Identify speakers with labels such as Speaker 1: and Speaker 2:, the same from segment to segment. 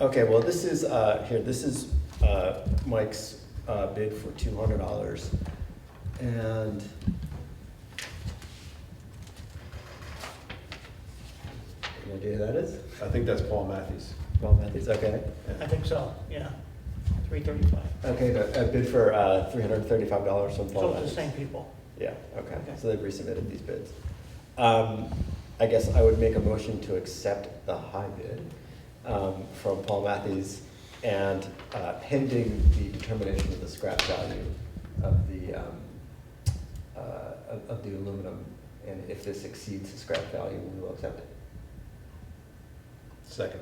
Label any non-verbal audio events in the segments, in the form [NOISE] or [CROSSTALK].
Speaker 1: Okay, well, this is, uh, here, this is, uh, Mike's, uh, bid for two hundred dollars. And any idea who that is?
Speaker 2: I think that's Paul Matthews.
Speaker 1: Paul Matthews, okay.
Speaker 2: Yeah.
Speaker 3: I think so, yeah. Three thirty-five.
Speaker 1: Okay, a bid for, uh, three hundred and thirty-five dollars from Paul
Speaker 3: So it's
Speaker 1: Matthews.
Speaker 3: the same people.
Speaker 1: Yeah, okay,
Speaker 3: Okay.
Speaker 1: so they've resubmitted these bids. Um, I guess I would make a motion to accept the high bid, um, from Paul Matthews and, uh, pending the determination of the scrap value of the, um, uh, of, of the aluminum. And if this exceeds the scrap value, we will accept it.
Speaker 2: Second.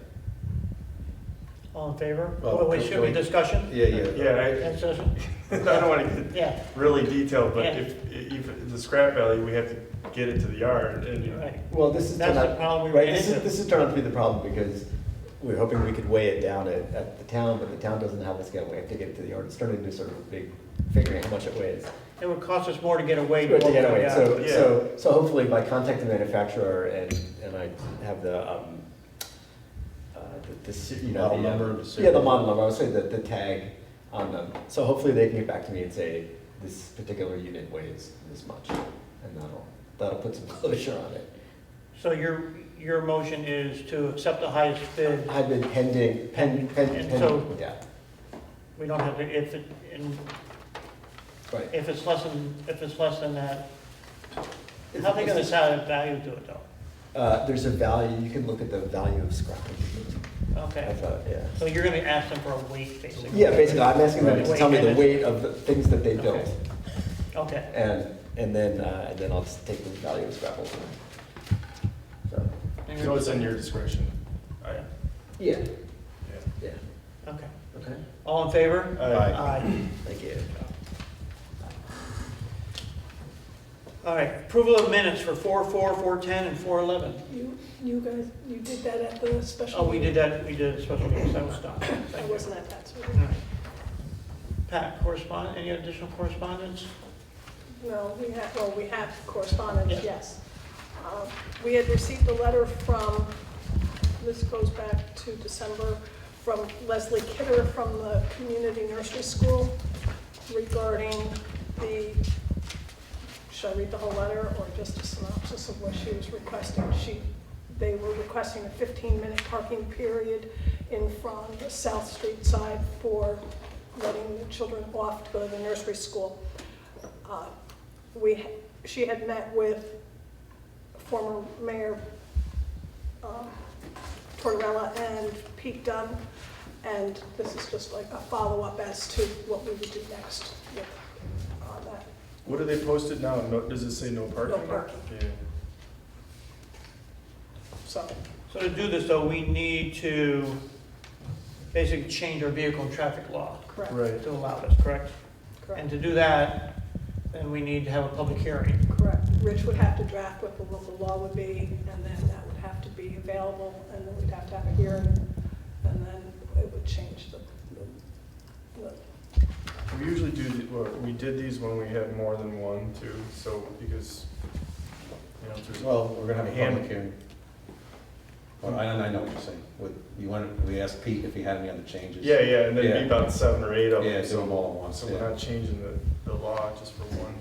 Speaker 3: All in favor?
Speaker 2: Well,
Speaker 3: Oh, wait,
Speaker 2: can-
Speaker 3: should be
Speaker 2: can we-
Speaker 3: discussion?
Speaker 2: Yeah, yeah.
Speaker 4: Yeah,
Speaker 3: Discussion?
Speaker 4: I, [LAUGHS] I don't want to get
Speaker 3: Yeah,
Speaker 4: really detailed, but
Speaker 3: Yeah.
Speaker 4: if, if the scrap value, we have to get it to the yard and.
Speaker 3: right.
Speaker 1: Well, this is.
Speaker 3: That's
Speaker 1: turned
Speaker 3: the
Speaker 1: out-
Speaker 3: problem we
Speaker 1: Right,
Speaker 3: ran
Speaker 1: this is,
Speaker 3: into.
Speaker 1: this is turned out to be the problem, because we we're hoping we could weigh it down at, at the town, but the town doesn't have a scale, we have to get it to the yard, it's turned into sort of a big, figuring how much it weighs.
Speaker 3: It would cost us more to get away.
Speaker 1: But
Speaker 3: than
Speaker 1: to get
Speaker 3: what we
Speaker 1: away,
Speaker 3: got.
Speaker 1: so,
Speaker 4: Yeah.
Speaker 1: so, so hopefully by contacting the manufacturer and, and I have the, um, uh, the, the, se- you know.
Speaker 2: Model
Speaker 1: the, um,
Speaker 2: number, the
Speaker 1: Yeah, the
Speaker 2: serial.
Speaker 1: model number, I would say the, the tag on them, so hopefully they can get back to me and say, this particular unit weighs this much, and that'll, that'll put some [LAUGHS] closure on it.
Speaker 3: So your, your motion is to accept the highest bid.
Speaker 1: I've been pending, pending, pending,
Speaker 3: And so-
Speaker 1: yeah,
Speaker 3: We don't have to, if it, and
Speaker 1: right.
Speaker 3: if it's less than, if it's less than that, how they gonna assign a value to it though?
Speaker 1: Uh, there's a value, you can look at the value of scrap. I
Speaker 3: Okay,
Speaker 1: thought, yeah.
Speaker 3: so you're gonna ask them for a weight, basically?
Speaker 1: Yeah, basically, I'm asking them to
Speaker 3: Weight
Speaker 1: tell me the
Speaker 3: limit.
Speaker 1: weight of the things that they
Speaker 3: Okay.
Speaker 1: built,
Speaker 3: Okay,
Speaker 1: and, and then, uh, and then I'll just take the value of scrap over. So,
Speaker 4: So it's in your oh, discretion. I-
Speaker 1: yeah,
Speaker 4: yeah.
Speaker 1: yeah,
Speaker 3: okay.
Speaker 1: okay,
Speaker 3: All in favor?
Speaker 4: Aye.
Speaker 3: Aye.
Speaker 1: thank you.
Speaker 3: All right, approval of minutes for four, four, four, ten, and four, eleven.
Speaker 5: You, you guys, you did that at the special.
Speaker 3: Oh, we did
Speaker 5: meeting.
Speaker 3: that, we did a special meeting, that was done.
Speaker 5: I
Speaker 3: Thank you.
Speaker 5: wasn't at that, so.
Speaker 3: All right. Pat, correspond, any additional correspondence?
Speaker 5: No, we have, well, we have correspondence,
Speaker 3: Yeah.
Speaker 5: yes. Uh, We had received a letter from, this goes back to December, from Leslie Kidder from the Community Nursery School regarding the, should I read the whole letter or just a synopsis of what she was requesting? She, they were requesting a 15-minute parking period in front of the South Street side for letting the children off to go to the nursery school. Uh, we, she had met with former Mayor um, Tortorella and Pete Dunn, and this is just like a follow-up as to what we would do next with uh, that.
Speaker 4: What are they posted now? No, does it say no parking?
Speaker 5: parking.
Speaker 4: Yeah.
Speaker 5: So
Speaker 3: So to do this, though, we need to basically change our vehicle and traffic law
Speaker 5: Correct,
Speaker 4: Right.
Speaker 3: to allow this, correct? And
Speaker 5: correct,
Speaker 3: to do that, then we need to have a public hearing.
Speaker 5: correct. Rich would have to draft what the local law would be, and then that would have to be available, and then we'd have to have a hearing, and then it would change the, the
Speaker 4: We usually do, the- well, we did these when we had more than one too, so because, you know, if there's.
Speaker 2: Well, we're gonna have a
Speaker 4: And-
Speaker 2: public hearing. Well, I, and I know what you're saying, with, you wanted, we asked Pete if he had any other changes.
Speaker 4: Yeah, yeah, and then
Speaker 2: Yeah.
Speaker 4: be about seven or eight of
Speaker 2: Yeah,
Speaker 4: them,
Speaker 2: do them
Speaker 4: so,
Speaker 2: all at once,
Speaker 4: so we're
Speaker 2: yeah.
Speaker 4: not changing the, the law just for one,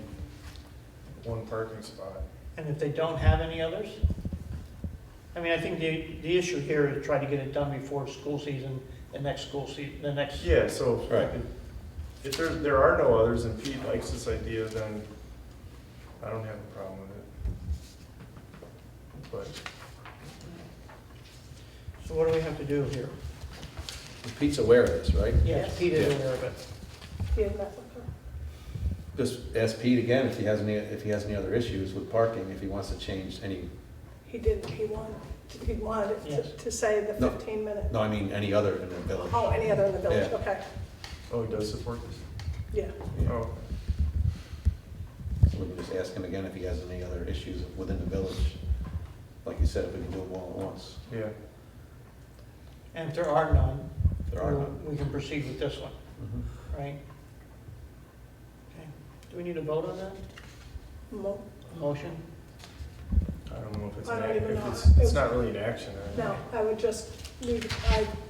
Speaker 4: one parking spot.
Speaker 3: And if they don't have any others? I mean, I think the, the issue here is try to get it done before school season, the next school season, the next.
Speaker 4: Yeah, so if-
Speaker 2: Right.
Speaker 4: if there, there are no others and Pete likes this idea, then I don't have a problem with it. But
Speaker 3: So what do we have to do here?
Speaker 2: Pete's aware of this, right?
Speaker 3: Yes, Pete is aware of it.
Speaker 5: he had met with her.
Speaker 2: Just ask Pete again if he has any, if he has any other issues with parking, if he wants to change any,
Speaker 5: He didn't, he wanted, he wanted it
Speaker 3: Yes.
Speaker 5: to- to say the
Speaker 2: No.
Speaker 5: 15 minute.
Speaker 2: no, I mean, any other in the village.
Speaker 5: Oh, any other in the village,
Speaker 2: Yeah.
Speaker 5: okay,
Speaker 4: Oh, he does support this?
Speaker 5: yeah.
Speaker 2: Yeah.
Speaker 4: Oh,
Speaker 2: So we can just ask him again if he has any other issues within the village. Like you said, if we can do them all at once,
Speaker 4: yeah.
Speaker 3: And if there are none,
Speaker 2: if there are none.
Speaker 3: we can proceed with this one,
Speaker 2: Mhm.
Speaker 3: right? Okay. Do we need a vote on that?
Speaker 5: Mo-
Speaker 3: A Motion?
Speaker 4: I don't know if it's,
Speaker 5: I
Speaker 4: an
Speaker 5: don't
Speaker 4: ac-
Speaker 5: even
Speaker 4: if
Speaker 5: know.
Speaker 4: it's, it's
Speaker 5: It's-
Speaker 4: not really an action. I don't
Speaker 5: No,
Speaker 4: know.
Speaker 5: I would just leave, I